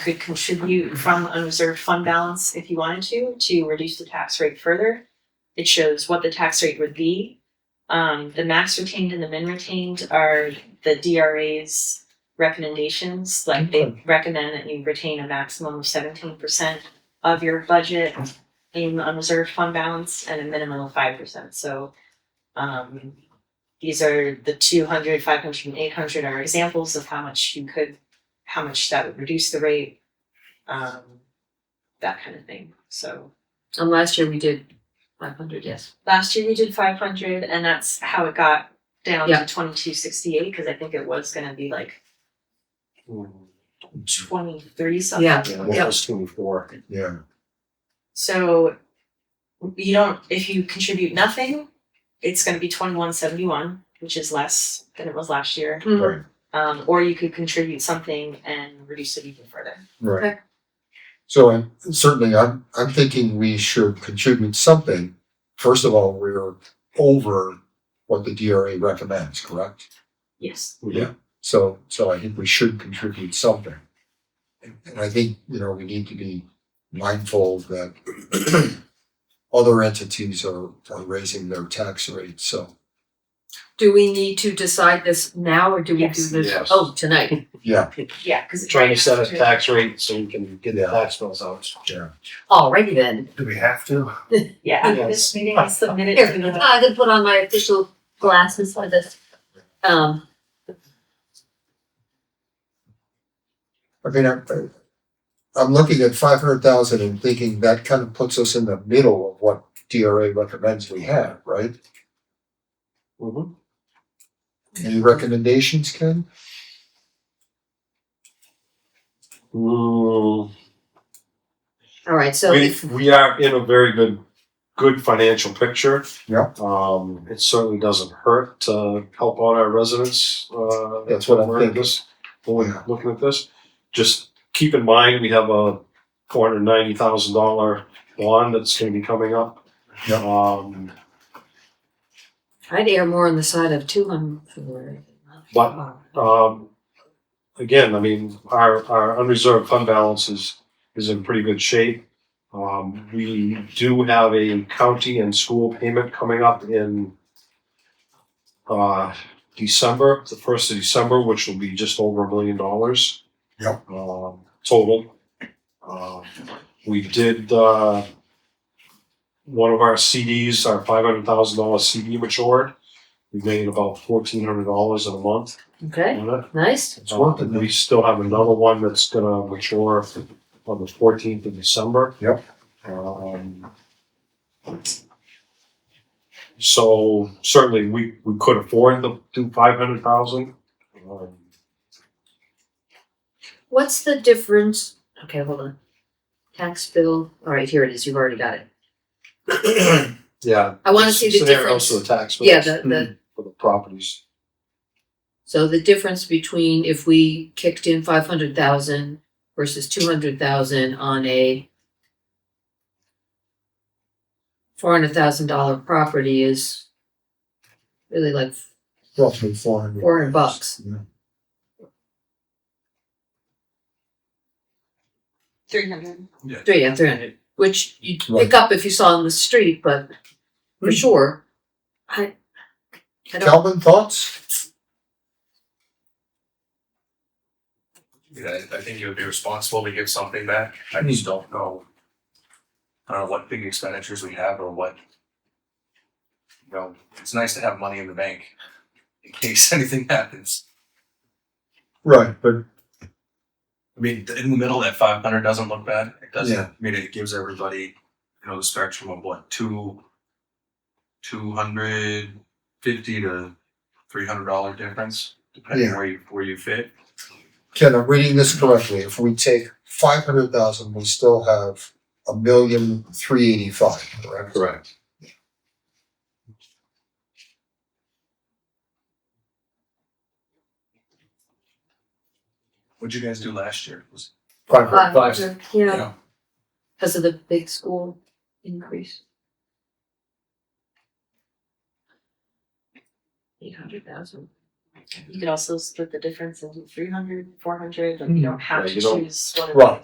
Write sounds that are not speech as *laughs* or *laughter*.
could contribute from unreserved fund balance if you wanted to, to reduce the tax rate further. It shows what the tax rate would be. Um, the max retained and the min retained are the DRA's recommendations, like they recommend that you retain a maximum of seventeen percent of your budget in unreserved fund balance and a minimum of five percent, so um, these are the 200, 500, and 800 are examples of how much you could, how much that would reduce the rate, um, that kind of thing. So And last year we did five hundred, yes. last year we did 500, and that's how it got down Yeah. to 2268 because I think it was going to be like 23 something. Yeah. Yeah, what was twenty-four? Yeah, So you don't, if you contribute nothing, it's going to be 2171, which is less than it was last year. Mm-hmm. right, Um, or you could contribute something and reduce it even further. right. Okay. So, and certainly, I'm, I'm thinking we should contribute something. First of all, we're over what the DRA recommends, correct? Yes. Yeah. So, so I think we should contribute something. And and I think, you know, we need to be mindful that *clears throat* other entities are, are raising their tax rates, so, Do we need to decide this now or do we do Yes. this? Yes. Oh, tonight. yeah, Yeah, because Trying to set a tax rate so we can get the tax bills out. yeah. Alrighty then. Do we have to? Yeah, after this meeting, I submitted Here, to the. I can put on my official glasses for this. Um, I mean, I'm, I'm looking at five hundred thousand and thinking that kind of puts us in the middle of what DRA recommends we have, right? Mhm. Any Mhm. recommendations, Ken? Mm, alright, so We, we are in a very good, good financial picture. Yeah. Um, it certainly doesn't hurt to help out our residents, uh. That's what I'm we're in thinking. this- When Yeah. we're looking at this, just keep in mind, we have a four hundred ninety thousand dollar bond that's gonna be coming up. Yeah. Um, I'd err more on the side of two hundred. But- Um, again, I mean, our, our unreserved fund balance is, is in pretty good shape. Um, we do have a county and school payment coming up in, uh, December, the first of December, which will be just over a million dollars. Yep. Um, total. Uh, we did, uh, one of our CDs, our five hundred thousand dollar CD matured. We made about fourteen hundred dollars in a month Okay, on it. nice. It's worth it, Um, though. We still have another one that's gonna mature on the fourteenth of December. Yep. Um, So certainly we, we could afford to do five hundred thousand. What's the difference? Okay, hold on. Tax bill, alright, here it is, you've already got it. Yeah. I wanna see the difference. Scenarios for the tax bills. Yeah, the, the, For the properties. so the difference between if we kicked in five hundred thousand versus two hundred thousand on a four hundred thousand dollar property is really like Roughly four hundred. four hundred bucks. Three hundred. Three, yeah, three hundred, which you'd pick up if you saw on the street, but for sure. I, I don't, Calvin, thoughts? Yeah, I- I think it would be responsible to give something back. I just don't know. I don't know what big expenditures we have or what. You know, it's nice to have money in the bank in case *laughs* anything happens. Right, but I mean, th- in the middle, that five hundred doesn't look bad. It doesn't. Yeah. I mean, it gives everybody, you know, the spectrum of what, two, two hundred fifty to three hundred dollar difference, depending Yeah. where you, where you fit. Ken, I'm reading this correctly. If we take five hundred thousand, we still have a million three eighty-five, correct? Correct. What'd you guys do last year? Was Five hundred. uh, yeah, Yeah. because of the big school increase. Eight hundred thousand. You could also split the difference into 300, 400, like you don't have Yeah, to you don't- choose one of Right. these.